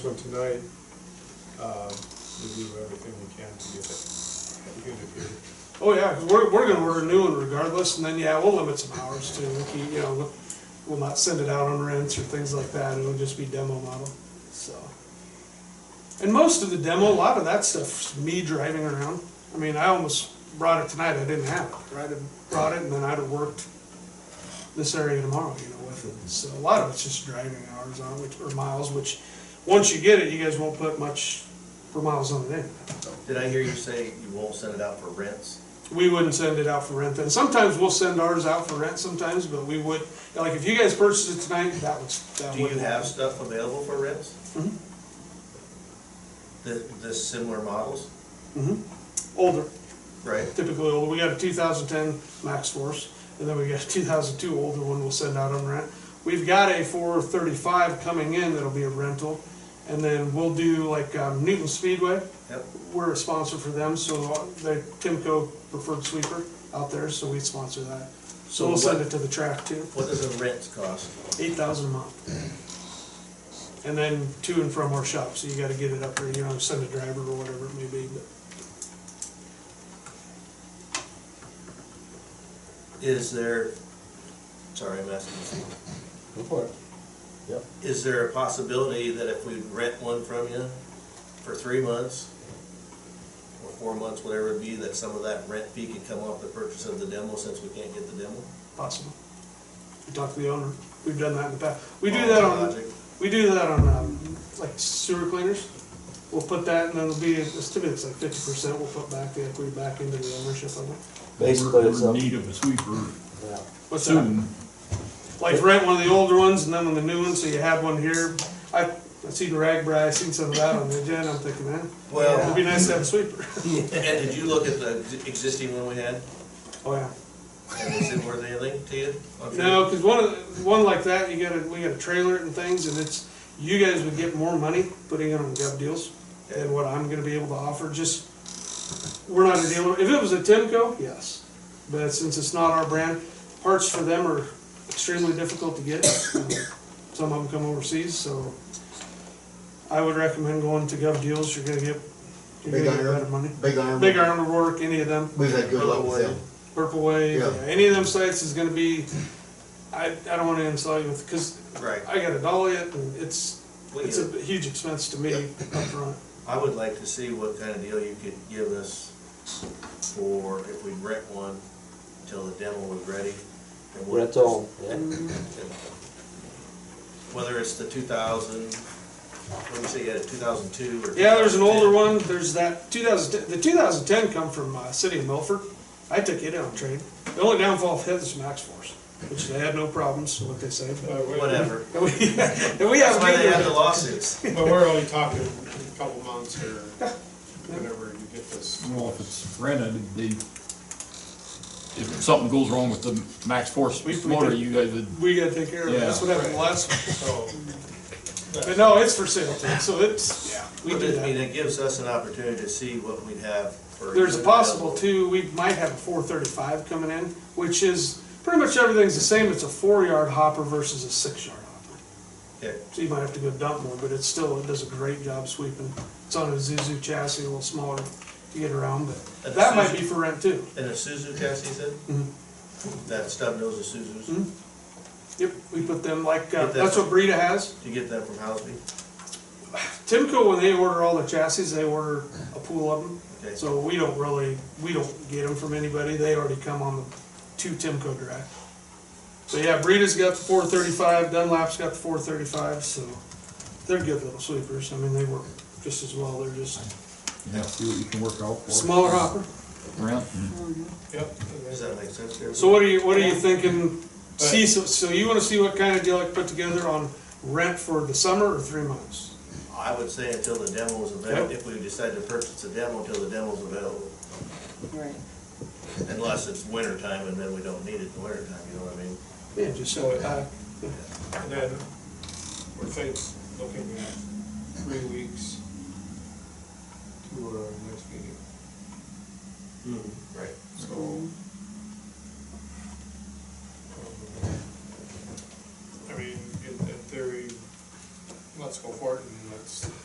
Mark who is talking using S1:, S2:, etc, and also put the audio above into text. S1: one tonight, um, we do everything we can to get it, get it here.
S2: Oh, yeah, 'cause we're, we're gonna order a new one regardless, and then, yeah, we'll limit some hours to, we keep, you know, we'll- we'll not send it out on rents or things like that, it'll just be demo model, so. And most of the demo, a lot of that stuff's me driving around, I mean, I almost brought it tonight, I didn't have it, right, I brought it, and then I'd have worked this area tomorrow, you know, with it, so a lot of it's just driving hours on, it, which, or miles, which, once you get it, you guys won't put much for miles on it anyway.
S3: Did I hear you say you won't send it out for rents?
S2: We wouldn't send it out for rent then. Sometimes we'll send ours out for rent sometimes, but we would, like, if you guys purchased it tonight, that was, that
S3: Do you
S2: would.
S3: have stuff available for rents?
S2: Mhm.
S3: The, the similar models,
S2: Mhm. Older,
S3: right?
S2: typically older. We got a two thousand ten Max Force, and then we got a two thousand two older one we'll send out on rent. We've got a four thirty-five coming in that'll be a rental, and then we'll do like, um, Newton Speedway.
S3: Yep.
S2: We're a sponsor for them, so they're Timco preferred sweeper out there, so we sponsor that. So
S3: So
S2: we'll send
S3: what-
S2: it to the track too.
S3: What does a rent cost?
S2: eight thousand a month. And then to and from our shop, so you gotta get it up there, you know, send a driver or whatever it may be, but
S3: Is there, sorry, I'm asking you.
S1: Go for it.
S3: Is there a possibility that if we rent one from you for three months or four months, whatever it be, that some of that rent fee can come off the purchase of the demo since we can't get the demo?
S2: possible. We talk to the owner, we've done that in the past, we do that on, we do that on, um, like sewer cleaners. We'll put that, and then it'll be, it's to me, it's like fifty percent, we'll put back the equity back into the ownership of it.
S4: Basically,
S5: We're-
S4: it's
S5: We're
S4: a,
S5: in need of a sweeper
S4: yeah.
S2: What's that?
S5: soon.
S2: like rent one of the older ones and then one of the new ones, so you have one here. I, I seen Ragbri, I seen some of that on the agenda, I'm thinking, man,
S3: Well-
S2: it'd be nice to have a sweeper.
S3: And did you look at the existing one we had?
S2: Oh, yeah.
S3: And is it worth anything to you? I'm sure-
S2: No, because one of the- one like that, you gotta we gotta trailer it and things, and it's you guys would get more money putting it on gov deals than what I'm gonna be able to offer. Just we're not a dealer. If it was a Timco, yes, but since it's not our brand, parts for them are extremely difficult to get. Um, Some of them come overseas, so I would recommend going to gov deals. You're gonna get you're
S6: Big
S2: gonna get
S6: Iron.
S2: better money.
S6: Big iron.
S2: Big Iron will work any of them.
S6: We've had good luck with them.
S2: Purple Wave,
S6: Yeah.
S2: yeah, any of them sites is gonna be, I, I don't wanna insult you with, cause
S3: Right.
S2: I gotta dolly it, and it's,
S3: We
S2: it's
S3: get
S2: a
S3: it.
S2: huge expense to me upfront.
S3: I would like to see what kind of deal you could give us for if we rent one till the demo was ready. and what-
S4: Rent on, yeah.
S3: Whether it's the two thousand, let me say you had a two thousand two or.
S2: Yeah, there's an older
S3: 2010.
S2: one, there's that two thousand, the two thousand ten come from, uh, city of Milford. I took it on trade. The only downfall of it is Max Force, which they had no problems, what they say, but.
S1: But we-
S3: Whatever.
S2: And we, and we
S3: That's
S2: have.
S3: why they have the
S2: good-
S3: lawsuits.
S1: But we're only talking a couple months or whenever you get this.
S5: Well, if it's rented, the, if something goes wrong with the max force
S2: We- we
S5: motor,
S2: did-
S5: you guys would,
S2: We gotta take care of it, that's
S5: Yeah.
S2: what happened last, one.
S1: So,
S2: but no, it's for sale too, so it's, yeah, we
S3: But
S2: do
S3: it-
S2: that.
S3: I mean, it gives us an opportunity to see what we'd have for.
S2: There's a possible
S3: two.
S2: too, we might have a four thirty-five coming in, which is, pretty much everything's the same, it's a four-yard hopper versus a six-yard hopper.
S3: Okay,
S2: So you might have to go dump more, but it's still, it does a great job sweeping. It's on a Zuzu chassis, a little smaller to get around, but
S3: And
S2: that might
S3: Zuzu-
S2: be for rent too.
S3: and a Suzu chassis you said?
S2: Mhm.
S3: That stub nose of Suzu's,
S2: Mhm. Yep, we put them like, uh,
S3: Get that-
S2: that's what Brita has.
S3: do you get that from Housby?
S2: Timco, when they order all the chassis, they order a pool of them.
S3: Okay.
S2: So we don't really, we don't get them from anybody, they already come on the two Timco drive. So yeah, Breida's got the four thirty-five, Dunlap's got the four thirty-five, so they're good little sweepers, I mean, they work just as well, they're just
S5: you know, see what you can work out for.
S2: smaller hopper.
S5: Rent,
S1: yep. and
S3: Does
S1: then-
S3: that make sense to everybody?
S2: So what are you, what are you thinking, see, so, so you wanna see what kind of deal I can put together on rent for the summer or three months?
S3: I would say until the demo is available,
S2: Yep.
S3: if we decide to purchase a demo, until the demo's available.
S7: Right.
S3: Unless it's winter time and then we don't need it in the winter time, you know what I mean?
S2: Yeah, just so, uh,
S1: And then, we're think, looking at um,